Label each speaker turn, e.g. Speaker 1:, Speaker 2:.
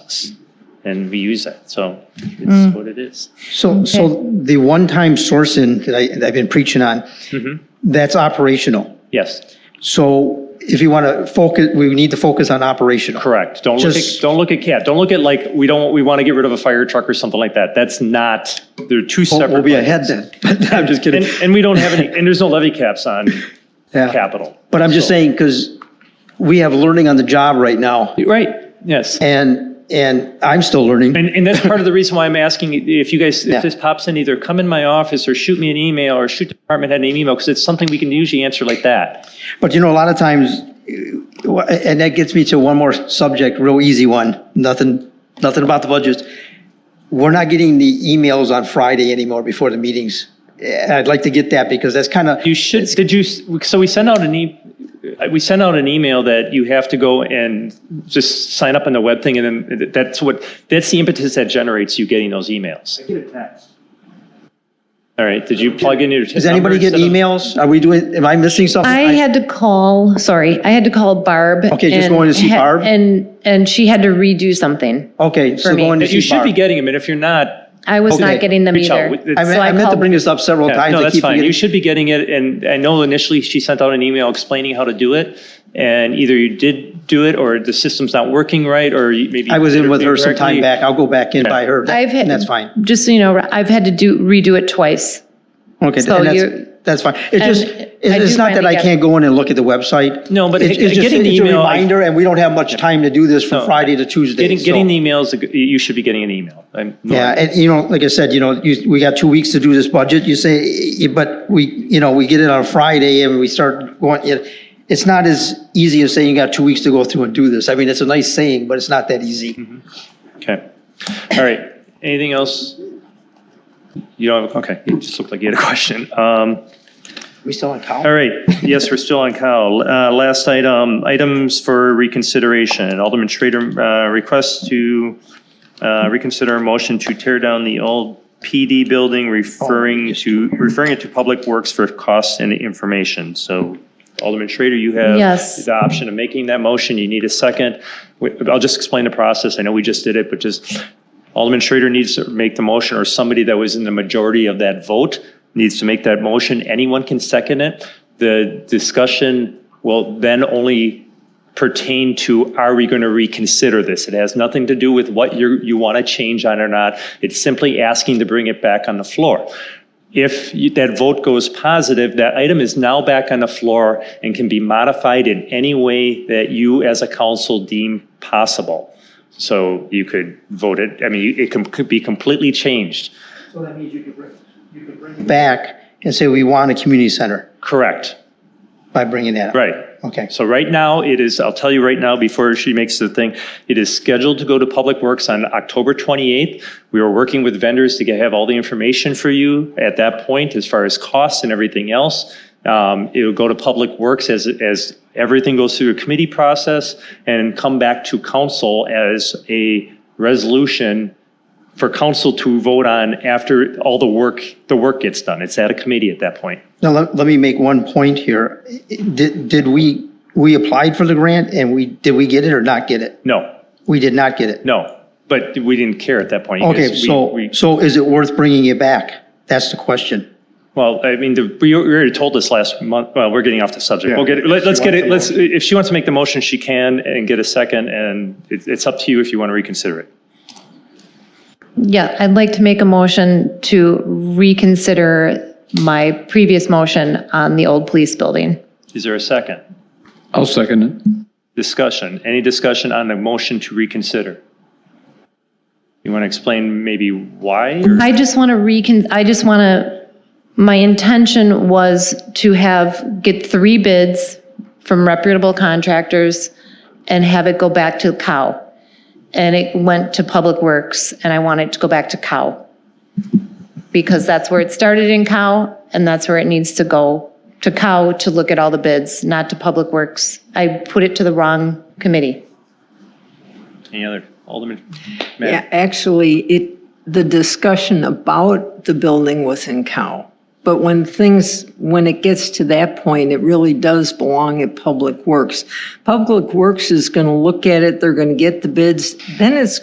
Speaker 1: process. And we use that, so it's
Speaker 2: Mm.
Speaker 1: what it is.
Speaker 3: So, so the one-time sourcing that I, that I've been preaching on,
Speaker 1: Mhm.
Speaker 3: that's operational.
Speaker 1: Yes,
Speaker 3: So if you want to focus, we need to focus on operational.
Speaker 1: correct. Don't look at,
Speaker 3: Just-
Speaker 1: don't look at CAT. Don't look at like, we don't, we want to get rid of a fire truck or something like that. That's not, they're two
Speaker 3: We'll-
Speaker 1: separate.
Speaker 3: We'll be
Speaker 1: budgets.
Speaker 3: ahead then, but I'm just kidding.
Speaker 1: And, and we don't have any, and there's no levy caps on
Speaker 3: Yeah.
Speaker 1: capital.
Speaker 3: But I'm just
Speaker 1: So-
Speaker 3: saying, because we have learning on the job right now,
Speaker 1: Right, yes.
Speaker 3: and, and I'm still learning.
Speaker 1: And, and that's part of the reason why I'm asking if you guys,
Speaker 3: Yeah.
Speaker 1: if this pops in, either come in my office or shoot me an email or shoot the department head an email, because it's something we can usually answer like that.
Speaker 3: But you know, a lot of times, uh, and that gets me to one more subject, real easy one, nothing, nothing about the budgets. We're not getting the emails on Friday anymore before the meetings. And I'd like to get that because that's kind of,
Speaker 1: You should, did you, so we sent out an e, we sent out an email that you have to go and just sign up on the web thing, and then that's what, that's the impetus that generates you getting those emails.
Speaker 4: Get a text.
Speaker 1: All right, did you plug in your?
Speaker 3: does anybody get emails? Are we doing, am I missing something?
Speaker 2: I had to call, sorry, I had to call Barb.
Speaker 3: Okay, just
Speaker 2: and
Speaker 3: going to see
Speaker 2: ha-
Speaker 3: Barb?
Speaker 2: And, and she had to redo something.
Speaker 3: Okay, so
Speaker 2: for me.
Speaker 3: going to
Speaker 1: That you
Speaker 3: see
Speaker 1: should be
Speaker 3: Barb.
Speaker 1: getting them, and if you're not,
Speaker 2: I was
Speaker 3: Okay.
Speaker 2: not getting them
Speaker 1: Reach out.
Speaker 2: either.
Speaker 1: It's-
Speaker 3: I meant,
Speaker 2: So I
Speaker 3: I meant to
Speaker 2: called-
Speaker 3: bring this up several
Speaker 1: yeah,
Speaker 3: times.
Speaker 1: no,
Speaker 3: I
Speaker 1: that's
Speaker 3: keep
Speaker 1: fine.
Speaker 3: forgetting.
Speaker 1: You should be getting it, and I know initially she sent out an email explaining how to do it, and either you did do it, or the system's not working right, or you- maybe.
Speaker 3: I was in with her some
Speaker 1: incorrectly.
Speaker 3: time back. I'll go back in by her.
Speaker 2: I've had-
Speaker 3: and That's fine.
Speaker 2: Just so you know, I've had to do, redo it twice.
Speaker 3: Okay,
Speaker 2: So
Speaker 3: and that's,
Speaker 2: you-
Speaker 3: that's fine. It just,
Speaker 2: And
Speaker 3: it-
Speaker 2: I
Speaker 3: it's
Speaker 2: do
Speaker 3: not that
Speaker 2: finally
Speaker 3: I
Speaker 2: get-
Speaker 3: can't go in and look at the website.
Speaker 1: No, but
Speaker 3: It's-
Speaker 1: it-
Speaker 3: it's just-
Speaker 1: getting the
Speaker 3: It's a
Speaker 1: email, I-
Speaker 3: reminder, and we don't have much time to do this
Speaker 1: No.
Speaker 3: from Friday to Tuesday.
Speaker 1: Getting,
Speaker 3: so-
Speaker 1: getting the emails, you should be getting an email. I'm-
Speaker 3: Yeah, and you know, like I said, you know, you, we got two weeks to do this budget, you say, but we, you know, we get it on Friday and we start going, it- it's not as easy as saying you got two weeks to go through and do this. I mean, it's a nice saying, but it's not that easy.
Speaker 1: Mm-hmm. Okay. All right. Anything else? You don't have, okay, you just looked like you had a question. Um,
Speaker 3: We still on
Speaker 1: All
Speaker 3: count?
Speaker 1: right, yes, we're still on Kyle. Uh, Last item, items for reconsideration. Alderman Schrader uh, requests to uh, reconsider a motion to tear down the old PD building, referring to, referring it to Public Works for costs and information. So Alderman Schrader, you have
Speaker 2: Yes.
Speaker 1: the option of making that motion. You need a second. We- I'll just explain the process. I know we just did it, but just Alderman Schrader needs to make the motion, or somebody that was in the majority of that vote needs to make that motion. Anyone can second it. The discussion will then only pertain to, are we going to reconsider this? It has nothing to do with what you, you want to change on or not. It's simply asking to bring it back on the floor. If you- that vote goes positive, that item is now back on the floor and can be modified in any way that you as a council deem possible. So you could vote it, I mean, it can- could be completely changed.
Speaker 4: So that means you could bring, you could bring.
Speaker 3: Back and say, we want a community center
Speaker 1: Correct,
Speaker 3: by bringing that up.
Speaker 1: right.
Speaker 3: Okay.
Speaker 1: So right now, it is, I'll tell you right now, before she makes the thing, it is scheduled to go to Public Works on October 28th. We are working with vendors to get, have all the information for you at that point as far as costs and everything else. Um, It'll go to Public Works as, as everything goes through a committee process and come back to council as a resolution for council to vote on after all the work, the work gets done. It's at a committee at that point.
Speaker 3: Now, let, let me make one point here. Did, did we, we applied for the grant and we, did we get it or not get it?
Speaker 1: No,
Speaker 3: We did not get it.
Speaker 1: no, but we didn't care at that point.
Speaker 3: Okay,
Speaker 1: because we-
Speaker 3: so,
Speaker 1: we-
Speaker 3: so is it worth bringing it back? That's the question.
Speaker 1: Well, I mean, the- we already told us last month, well, we're getting off the subject. We'll get, it- let- let's get it, let's, if she wants to make the motion, she can and get a second, and it- it's up to you if you want to reconsider it.
Speaker 2: Yeah, I'd like to make a motion to reconsider my previous motion on the old police building.
Speaker 1: Is there a second?
Speaker 5: I'll second it.
Speaker 1: Discussion, any discussion on the motion to reconsider? You want to explain maybe why? or-
Speaker 2: I just want to recon, I just want to, my intention was to have, get three bids from reputable contractors and have it go back to Cow. And it went to Public Works and I want it to go back to Cow. Because that's where it started in Cow and that's where it needs to go, to Cow to look at all the bids, not to Public Works. I put it to the wrong committee.
Speaker 1: Any other, Alderman? Matt?
Speaker 6: Yeah, actually, it, the discussion about the building was in Cal. But when things, when it gets to that point, it really does belong at Public Works. Public Works is going to look at it, they're going to get the bids, then it's